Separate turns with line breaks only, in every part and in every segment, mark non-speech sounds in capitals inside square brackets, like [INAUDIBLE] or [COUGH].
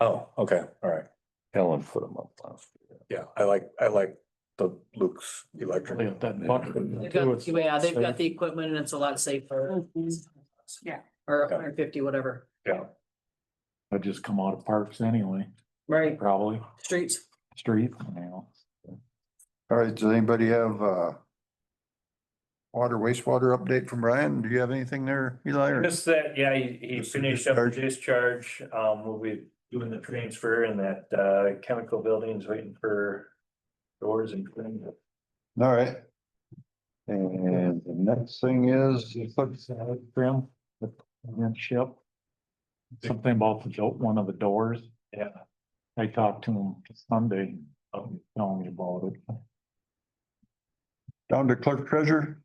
Oh, okay, all right.
Helen put them up last. year.
Yeah, I like, I like the Luke's
They
electric.
got that button.
They've got, yeah, they've got the equipment and it's a lot safer.
Yeah.
Or hundred and fifty, whatever,
I just come out of parks anyway,
right,
probably
streets.
street, you know.
All right, does anybody have, uh, water wastewater update from Brian? Do you have anything there, Eli? or-
Just that, yeah, he, he
Just
finished up the
discharge.
discharge, um, we'll be doing the transfer and that, uh, chemical building's waiting for doors and.
All right. And the next thing is,
Trim, the trim ship. Something about the do- one of the doors.
Yeah.
I talked to him Sunday, um, telling me about it.
down to clerk treasurer.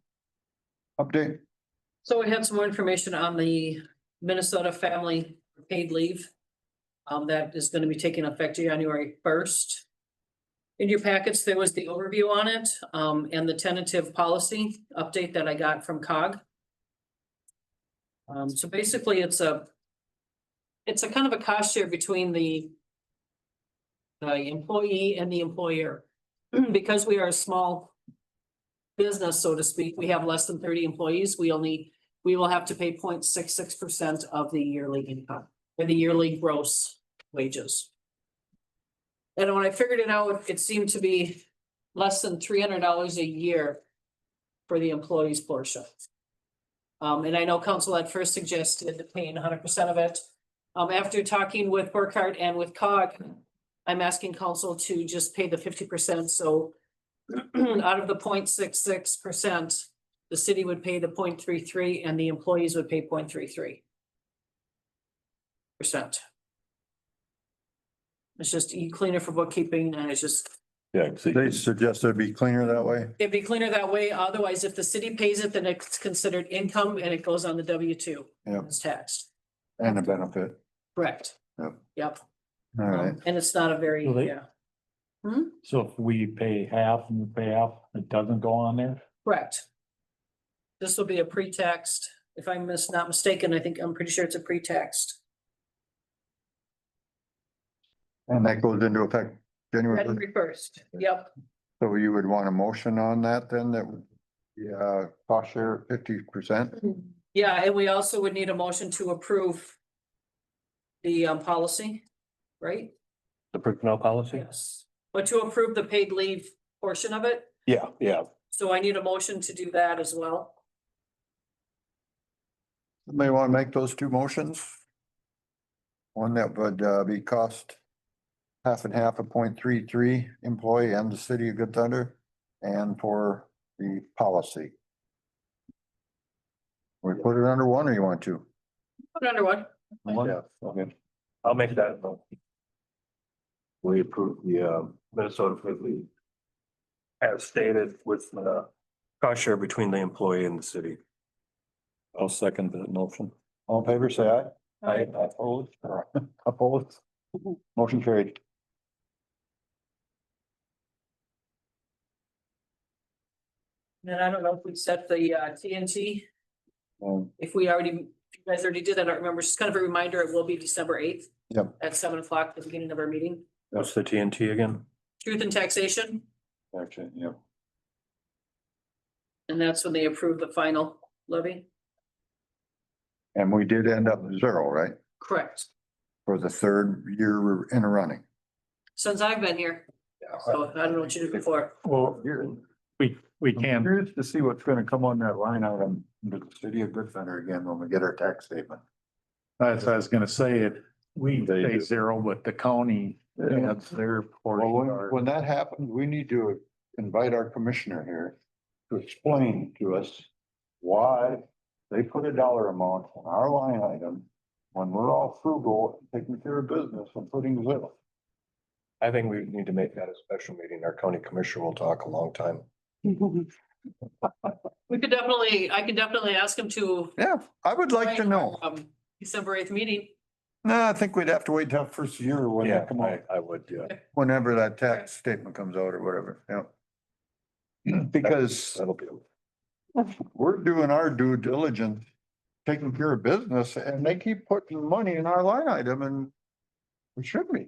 Update.
So we had some more information on the Minnesota family paid leave. Um, that is gonna be taking effect January first. In your packets, there was the overview on it, um, and the tentative policy update that I got from COG. Um, so basically, it's a. It's a kind of a cost share between the. The employee and the employer, [CLEARS THROAT] because we are a small business, so to speak, we have less than thirty employees, we only, we will have to pay 0.66 percent of the yearly income, or the yearly gross wages. And when I figured it out, it seemed to be less than three hundred dollars a year for the employees portion. Um, and I know council at first suggested paying hundred percent of it. Um, after talking with Burkhardt and with COG, I'm asking council to just pay the fifty percent, so [CLEARS THROAT] out of the 0.66 percent, the city would pay the 0.33 and the employees would pay 0.33 Percent. It's just e- cleaner for bookkeeping and it's just,
Yeah.
They suggested it'd be cleaner that way.
it'd be cleaner that way. Otherwise, if the city pays it, then it's considered income and it goes on the W two.
Yep.
It's taxed,
And a benefit.
correct?
Yep.
Yep.
All
Um,
right.
And it's not a very,
Well, they-
yeah,
So if we pay half and you pay half, it doesn't go on there?
correct. This will be a pretext. If I'm mis- not mistaken, I think, I'm pretty sure it's a pretext.
And that goes into effect January. first.
February first, yep,
So you would want a motion on that then that would, yeah, cost share fifty percent?
yeah, and we also would need a motion to approve. The um policy, right?
The personnel policy?
Yes. But to approve the paid leave portion of it,
Yeah, yeah.
so I need a motion to do that as well.
Somebody want to make those two motions? One that would uh, be cost half and half a point three three employee and the city of Good Thunder and for the policy. We put it under one or you want to?
Put under one,
Yeah, okay. I'll make that. vote. We approve the, uh, Minnesota Food League. As stated with the cost share between the employee and the city.
I'll second that motion.
All in favor, say aye.
Aye.
Opposed? Opposed? Motion carried.
and I don't know if we set the uh TNT,
Um,
if we already, if you guys already did that, I don't remember, just kind of a reminder, it will be December eighth.
Yep.
At seven o'clock, the beginning of our meeting,
What's the TNT again?
truth and taxation,
Actually, yeah.
and that's when they approve the final levy,
And we did end up zero, right?
correct?
For the third year in a running.
Since I've been here, so I don't know what you did before.
Well,
We, we
I'm
can,
curious to see what's gonna come on that line item under the city of Good Thunder again when we get our tax statement.
as I was gonna say it, we
They
pay
do.
zero, but the county, that's their
Well, when,
portion. or-
when that happens, we need to invite our commissioner here to explain to us why they put a dollar amount on our line item when we're all frugal, and taking care of business and putting little.
I think we need to make that a special meeting. Our county commissioner will talk a long time.
We could definitely, I could definitely ask him to.
Yeah, I would like to know.
Um, December eighth meeting,
No, I think we'd have to wait till first year when
Yeah,
that come
I,
out,
I would, yeah.
whenever that tax statement comes out or whatever, yeah. Because
That'll be.
we're doing our due diligence, taking care of business, and they keep putting money in our line item and We should be.